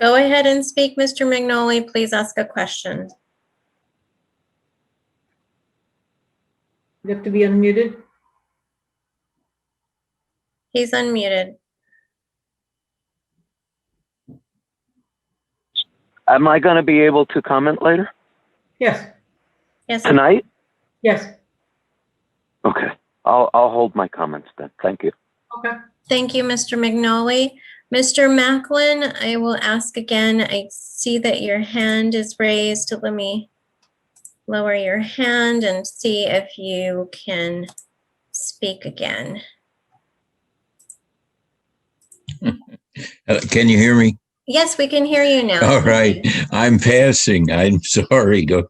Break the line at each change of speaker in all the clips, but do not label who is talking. Go ahead and speak, Mr. Magnoli. Please ask a question.
You have to be unmuted.
He's unmuted.
Am I going to be able to comment later
Yes,
Yes,
tonight?
yes,
Okay, I'll I'll hold my comments then. Thank you.
okay.
thank you, Mr. Magnoli. Mr. Macklin, I will ask again. I see that your hand is raised. Let me lower your hand and see if you can speak again.
Uh, Can you hear me?
Yes, we can hear you now.
All right. I'm passing. I'm sorry to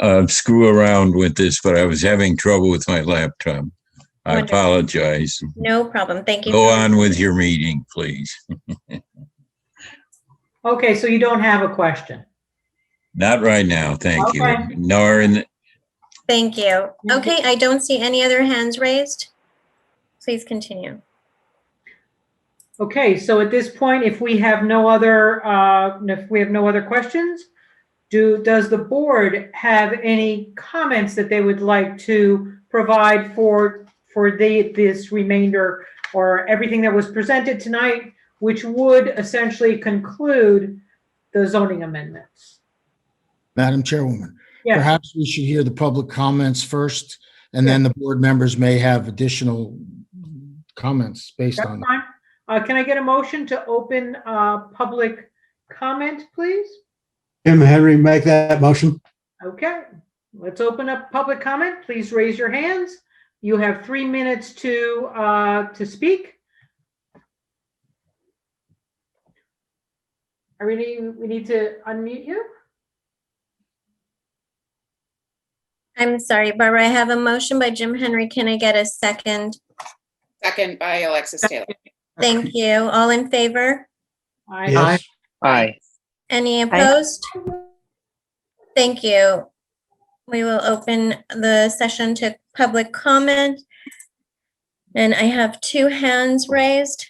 uh, screw around with this, but I was having trouble with my laptop. I
Wonderful.
apologize.
No problem. Thank you.
Go on with your meeting, please.
Okay, so you don't have a question.
Not right now, thank you.
Okay.
Nor in,
Thank you.
you.
Okay, I don't see any other hands raised. Please continue.
Okay, so at this point, if we have no other, uh, if we have no other questions, do, does the board have any comments that they would like to provide for, for the, this remainder or everything that was presented tonight, which would essentially conclude the zoning amendments?
Madam Chairwoman,
Yes.
perhaps we should hear the public comments first, and then the board members may have additional comments based
That's
on.
fine. Uh, can I get a motion to open, uh, public comment, please?
Jim Henry, make that motion.
Okay, let's open up public comment. Please raise your hands. You have three minutes to, uh, to speak. Are we, need- we need to unmute you?
I'm sorry, Barbara, I have a motion by Jim Henry. Can I get a second?
Second by Alexis Taylor.
Thank you. All in favor?
I
Aye.
Any opposed? Thank you. We will open the session to public comment. And I have two hands raised.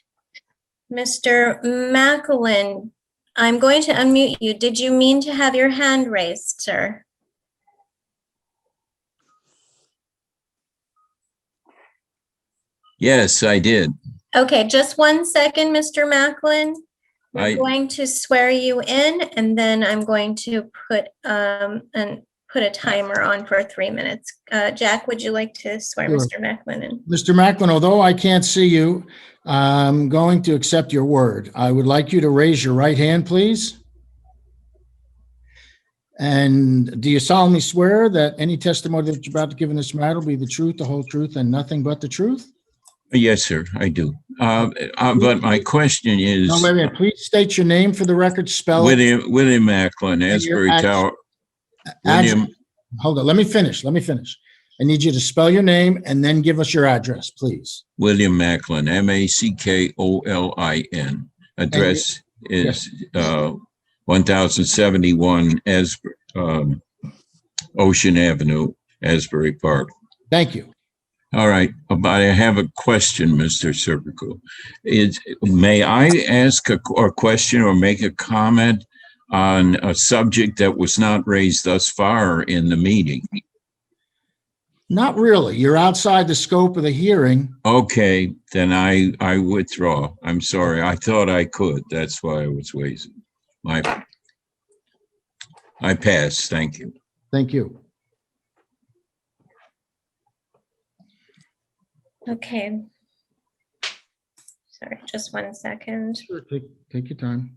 Mr. Macklin, I'm going to unmute you. Did you mean to have your hand raised, sir?
yes, I did.
Okay, just one second, Mr. Macklin. I'm
I,
going to swear you in and then I'm going to put um and put a timer on for three minutes. Uh, Jack, would you like to swear
Sure.
Mr. Macklin in?
Mr. Macklin, although I can't see you, I'm going to accept your word. I would like you to raise your right hand, please. And do you solemnly swear that any testimony that you're about to give in this matter will be the truth, the whole truth, and nothing but the truth?
yes, sir, I do. Uh, uh, But my question is,
No, wait a minute. Please state your name for the record, spell it.
William, William Macklin, Asbury
act-
Tower,
address-
William,
Hold on, let me finish, let me finish. I need you to spell your name and then give us your address, please.
William Macklin, M A C K O L I N. Address is uh, 1071 As, um, Ocean Avenue, Asbury Park.
Thank you.
All right, but I have a question, Mr. Serpico. Is, may I ask a, or question or make a comment on a subject that was not raised thus far in the meeting?
Not really, you're outside the scope of the hearing.
Okay, then I, I withdraw. I'm sorry. I thought I could. That's why I was waiting. My, I pass. Thank you.
Thank you.
Okay. Sorry, just one second.
Take, take your time.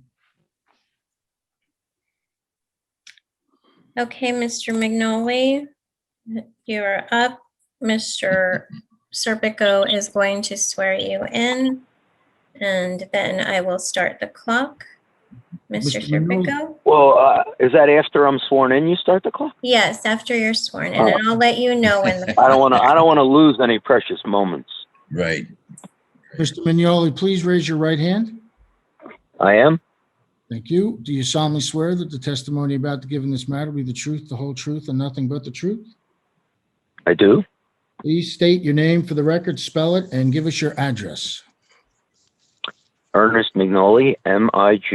Okay, Mr. Magnoli, you're up. Mr. Serpico is going to swear you in. And then I will start the clock. Mr.
Mr. Magnoli.
Serpico?
Well, uh, is that after I'm sworn in? You start the clock.
Yes, after you're sworn in, and I'll let you know when the
I don't want to. I don't want to lose any precious moments.
Right.
Mr. Mignoli, please raise your right hand.
I am.
Thank you. Do you solemnly swear that the testimony you're about to give in this matter will be the truth, the whole truth, and nothing but the truth?
I do.
Please state your name for the record, spell it, and give us your address.
Ernest Mignoli, M I G